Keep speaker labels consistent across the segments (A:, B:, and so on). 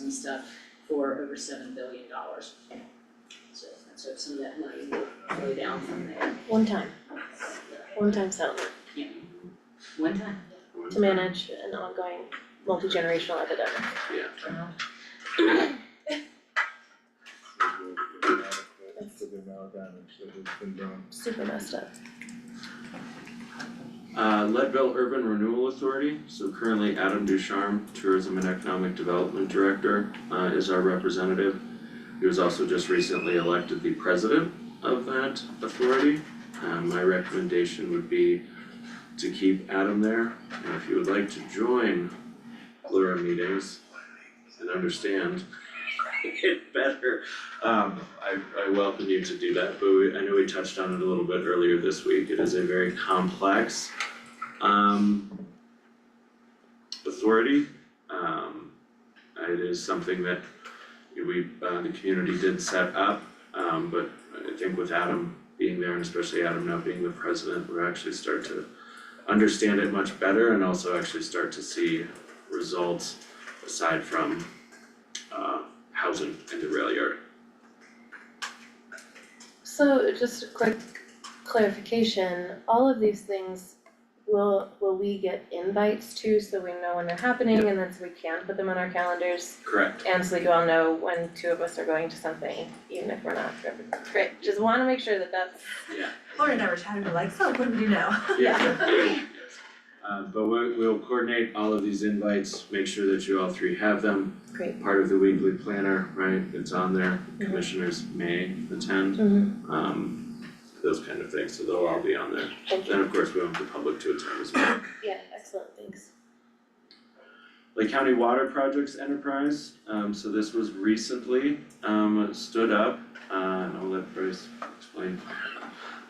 A: and stuff for over seven billion dollars. So, so some of that money will go down from there,
B: One time. One time settlement
A: yeah. One time.
B: to manage an ongoing multi-generational epidemic.
C: For the amount of damage that has been done.
B: Super messed up.
D: Uh, Leadville Urban Renewal Authority, so currently Adam Ducharme, Tourism and Economic Development Director, uh, is our representative. He was also just recently elected the president of that authority. Um, my recommendation would be to keep Adam there, and if you would like to join Lura meetings and understand it better, um, I, I welcome you to do that, but we, I know we touched on it a little bit earlier this week, it is a very complex um authority. Um it is something that we uh the community did set up, um but I think with Adam being there and especially Adam now being the president, we'll actually start to understand it much better and also actually start to see results aside from uh housing and the rail yard.
B: So just a quick clarification, all of these things, will will we get invites to so we know when they're happening and then so we can put them on our calendars?
D: Correct.
B: And so we all know when two of us are going to something, even if we're not forever. Great, just wanna make sure that that's
D: Yeah,
E: Lauren and I were chatting, we're like, so what do we do now?
D: yeah. Uh but we we'll coordinate all of these invites, make sure that you all three have them.
B: great.
D: part of the weekly planner, right, it's on there, commissioners may attend,
B: Mm-hmm.
D: um, those kind of things, so they'll all be on there.
B: Thank
D: Then,
B: you.
D: of course, we want the public to attend as well.
B: Yeah, excellent, thanks.
D: Lake County Water Projects Enterprise, um, so this was recently, um, stood up, uh, and I'll let Bryce explain,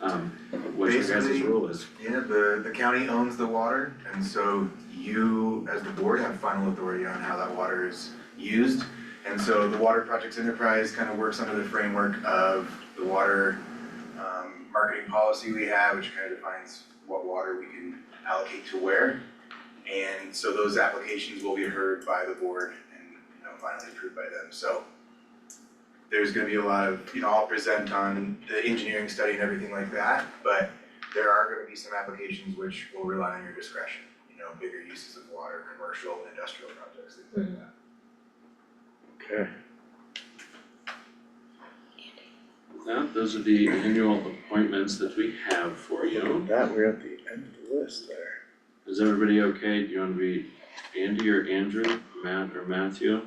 D: um, what your guys'
C: Basically-
D: role is.
C: Yeah, the, the county owns the water, and so you, as the board, have final authority on how that water is used. And so the Water Projects Enterprise kind of works under the framework of the water, um, marketing policy we have, which kind of defines what water we can allocate to where. And so those applications will be heard by the board and, you know, finally approved by them, so. There's gonna be a lot of, you know, I'll present on the engineering study and everything like that, but there are gonna be some applications which will rely on your discretion, you know, bigger uses of water, commercial, industrial projects, things like that.
D: Okay. Well, those are the annual appointments that we have for you.
F: That, we're at the end of the list there.
D: Is everybody okay? Do you wanna be Andy or Andrew, Matt or Matthew?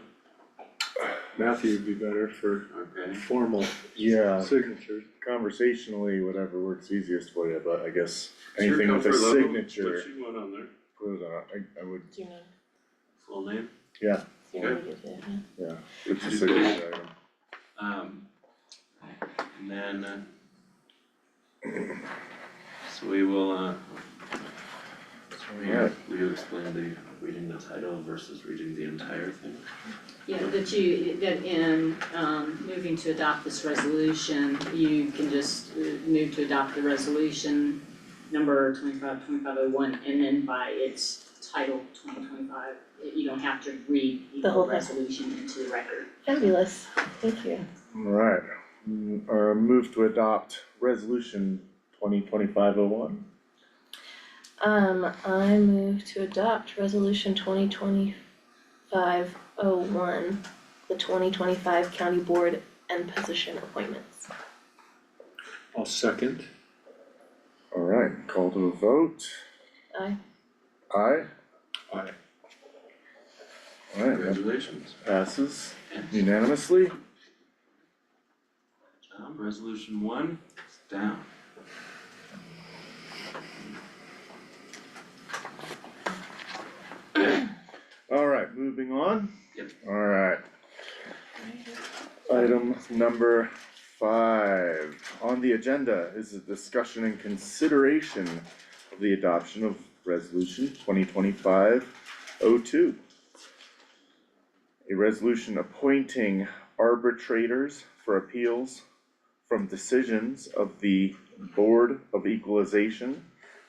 F: Matthew would be better for
D: Okay,
F: formal
C: Yeah,
F: signatures.
C: conversationally, whatever works easiest for you, but I guess
D: Sure,
C: anything with a
D: comfort level,
C: signature,
D: put you one on there,
C: put it on, I, I would,
B: Do you know,
D: full name.
B: do you know what you do? Yeah.
C: it's a
D: Did you-
C: signature item.
D: Um, and then, uh, so we will, uh,
C: Alright.
D: will you explain the reading the title versus reading the entire thing?
A: Yeah, that you, that in um moving to adopt this resolution, you can just uh, move to adopt the resolution number twenty-five, twenty-five oh one, and then by its title, twenty twenty-five, you don't have to read
B: The
A: the
B: whole
A: whole
B: thing.
A: resolution into the record.
B: Fabulous, thank you.
F: Alright, mm, or move to adopt resolution twenty twenty-five oh one.
B: Um, I move to adopt resolution twenty twenty-five oh one, the twenty twenty-five county board and position appointments.
F: I'll second.
C: Alright, call to a vote,
B: Aye.
C: aye?
F: Aye.
C: Alright, that
D: Congratulations.
C: passes unanimously,
D: Um, resolution one, is down.
C: alright, moving on.
D: Yep.
C: Alright, Item number five on the agenda is a discussion and consideration of the adoption of resolution twenty twenty-five oh two. A resolution appointing arbitrators for appeals from decisions of the Board of Equalization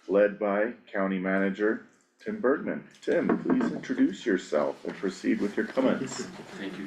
C: led by County Manager Tim Bergman. Tim, please introduce yourself and proceed with your comments.
D: Thank you